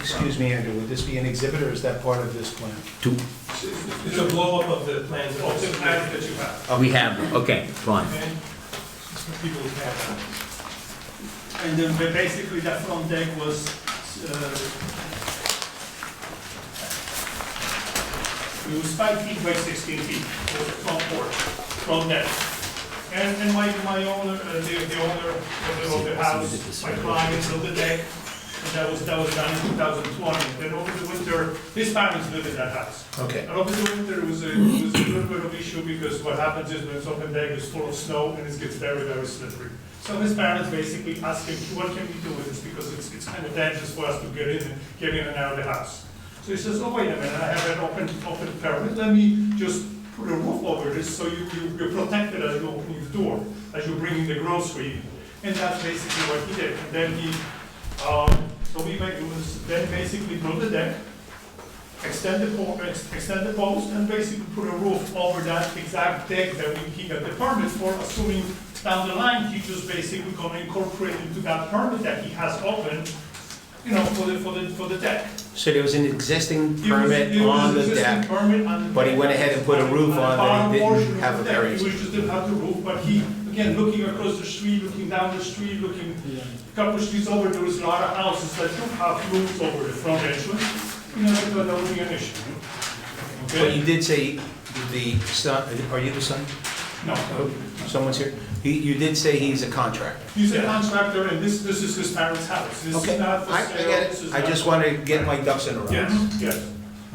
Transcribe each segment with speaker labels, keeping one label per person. Speaker 1: Excuse me, Andrew, would this be an exhibit or is that part of this plan?
Speaker 2: Two,
Speaker 3: It's a blow-up of the plans, of the plans that you have,
Speaker 2: we have, okay, fine.
Speaker 3: okay? For People who have that. And then ba- basically that front deck was, uh, it was five feet by sixteen feet, for the front porch, front deck. And, and my, my owner, uh, the, the owner of the, of the house, my client built the deck, and that was, that was done in two thousand twenty. Then over the winter, his parents lived in that house.
Speaker 1: Okay.
Speaker 3: And obviously winter was a, was a little bit of issue because what happens is when it's open deck is full of snow and it gets very, very slippery. So his parents basically asked him, what can we do with this? Because it's, it's kind of dangerous for us to get in and get in and out of the house. So he says, oh, wait a minute, I have an open, open permit, let me just put a roof over this so you, you- you're protected as you open the door, as you're bringing the grocery. in." And that's basically what he did. And then he, um, so we made, it was then basically built the deck, extend the po- ex extend the post, and basically put a roof over that exact deck that we, he got the permit for, assuming down the line, he just basically gonna incorporate into that permit that he has open, you know, for the, for the, for the deck.
Speaker 1: So there was an existing
Speaker 3: It was-
Speaker 1: permit
Speaker 3: it was
Speaker 1: on the
Speaker 3: existing
Speaker 1: deck.
Speaker 3: permit on the
Speaker 1: but he
Speaker 3: deck.
Speaker 1: went ahead and put a roof on that he
Speaker 3: On the
Speaker 1: didn't
Speaker 3: portion of
Speaker 1: have
Speaker 3: the
Speaker 1: a
Speaker 3: deck,
Speaker 1: variance.
Speaker 3: He was just didn't have the roof, but he, again, looking across the street, looking down the street, looking a couple of streets over, there was a lot of houses that don't have roofs over the front entrance. You know, I thought that would be an issue.
Speaker 1: But
Speaker 3: Okay?
Speaker 1: you did say the son, are you the son?
Speaker 3: No.
Speaker 1: Oh, Someone's here? You, you did say he's a contractor.
Speaker 3: He's a contractor, and this, this is his parents' house. This
Speaker 1: Okay,
Speaker 3: is
Speaker 1: I,
Speaker 3: not for
Speaker 1: I
Speaker 3: sale.
Speaker 1: get
Speaker 3: This is
Speaker 1: it. I
Speaker 3: not-
Speaker 1: just wanted to get my ducks in a row.
Speaker 3: Yes, yes,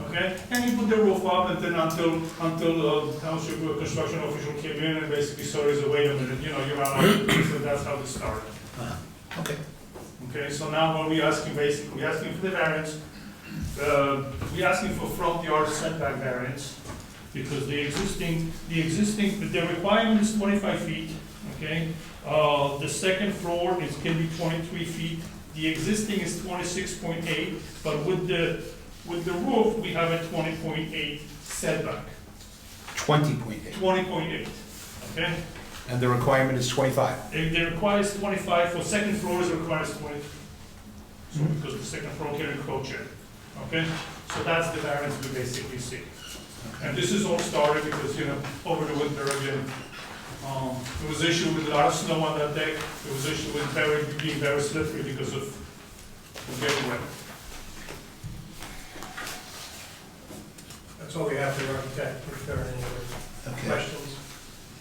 Speaker 3: okay? And he put the roof up, and then until, until uh, township uh, construction official came in and basically said, "Is wait a minute, you know, you're not allowed to do this," so that's how it started.
Speaker 1: Okay.
Speaker 3: Okay, so now what we asking basically, we asking for the variance, uh, we asking for front yard setback variance, because the existing, the existing, the requirement is twenty-five feet, okay? Uh, the second floor is, can be twenty-three feet, the existing is twenty-six point eight, but with the, with the roof, we have a twenty point eight setback,
Speaker 1: Twenty point eight,
Speaker 3: twenty point eight, okay?
Speaker 1: and the requirement is twenty-five.
Speaker 3: If they requires twenty-five, for second floors, it requires twenty. So, because the second floor can encroach it, okay? So that's the variance we basically see. And this is all started because, you know, over the winter again, um, there was issue with a lot of snow on that deck, there was issue with very, being very slippery because of, of getting wet. That's all we have for the architect, if there are any other
Speaker 1: Okay.
Speaker 3: questions.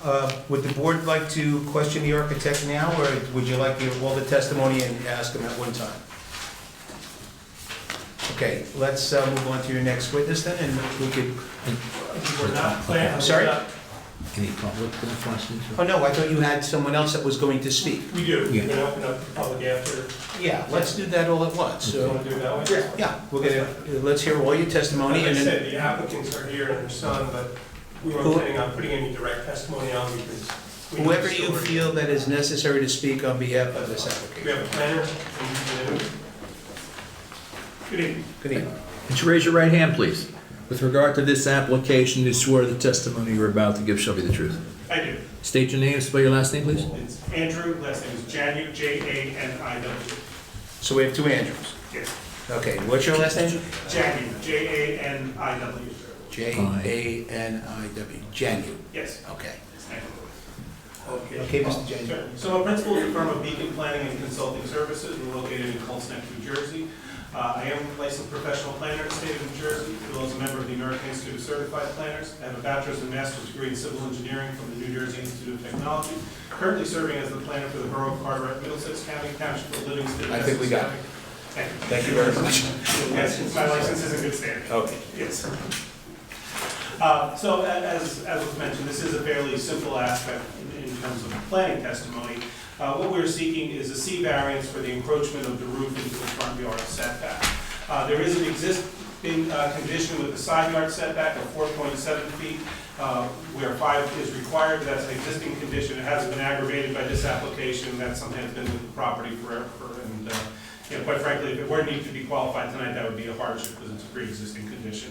Speaker 1: Uh, Would the board like to question the architect now, or would you like to give all the testimony and ask him at one time? Okay, let's uh, move on to your next witness then, and we could,
Speaker 3: We're not planning.
Speaker 1: I'm sorry?
Speaker 2: Any public questions?
Speaker 1: oh no, I thought you had someone else that was going to speak.
Speaker 3: We do,
Speaker 2: Yeah.
Speaker 3: we're gonna open up the public after,
Speaker 1: Yeah, let's do that all at once,
Speaker 3: so you
Speaker 1: so,
Speaker 3: wanna do it that way?
Speaker 4: Yeah,
Speaker 1: yeah, we're gonna, let's hear all your testimony
Speaker 4: like I
Speaker 1: and then.
Speaker 4: said, the applicants are here and their son, but we weren't
Speaker 1: Who-
Speaker 4: planning on putting any direct testimony on because we know the
Speaker 1: Whoever you
Speaker 4: story.
Speaker 1: feel that is necessary to speak on behalf of this
Speaker 4: We
Speaker 1: applicant.
Speaker 4: have a planner, and we do.
Speaker 3: Good evening.
Speaker 1: Good evening.
Speaker 5: Would you raise your right hand, please? With regard to this application, you swear the testimony you're about to give shall be the truth.
Speaker 3: I do.
Speaker 5: State your name, and spell your last name, please.
Speaker 3: It's Andrew, last name is Janu, J-A-N-I-W.
Speaker 1: So we have two Andrews.
Speaker 3: Yes,
Speaker 1: Okay, what's your last name?
Speaker 3: Janu, J-A-N-I-W.
Speaker 1: J A N I W, Janu,
Speaker 3: Yes,
Speaker 1: okay.
Speaker 3: thank you.
Speaker 1: Okay, Mr. Janu.
Speaker 4: Sure. So a principal of the firm of Beacon Planning and Consulting Services, we're located in Colts Neck, New Jersey. Uh, I am a licensed professional planner in the state of New Jersey, as well as a member of the American Institute of Certified Planners. I have a bachelor's and master's degree in civil engineering from the New Jersey Institute of Technology. Currently serving as the planner for the Borough of Carteret, Middlesex County, Township of Livingston.
Speaker 1: I think we got it.
Speaker 4: Essex County. Thank you.
Speaker 1: Thank you very much.
Speaker 4: Yes, my license is in good standing.
Speaker 1: Okay.
Speaker 4: Yes. Uh, So a- as, as was mentioned, this is a fairly simple aspect in- in terms of planning testimony. Uh, What we're seeking is a C variance for the encroachment of the roof into the front yard setback. Uh, There is an existing uh, condition with the side yard setback of 4.7 feet, uh, where five is required. That's an existing condition. It hasn't been aggravated by this application. That's something that's been with the property forever. And uh, you know, quite frankly, if it were needed to be qualified tonight, that would be a hardship because it's a pre-existing condition.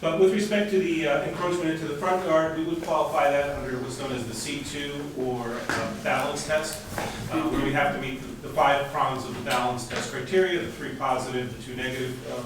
Speaker 3: But with respect to the uh, encroachment into the front yard, we would qualify that under what's known as the C2 or uh, balance test, uh, where we have to meet the- the five prongs of the balance test criteria, the three positive, the two negative uh,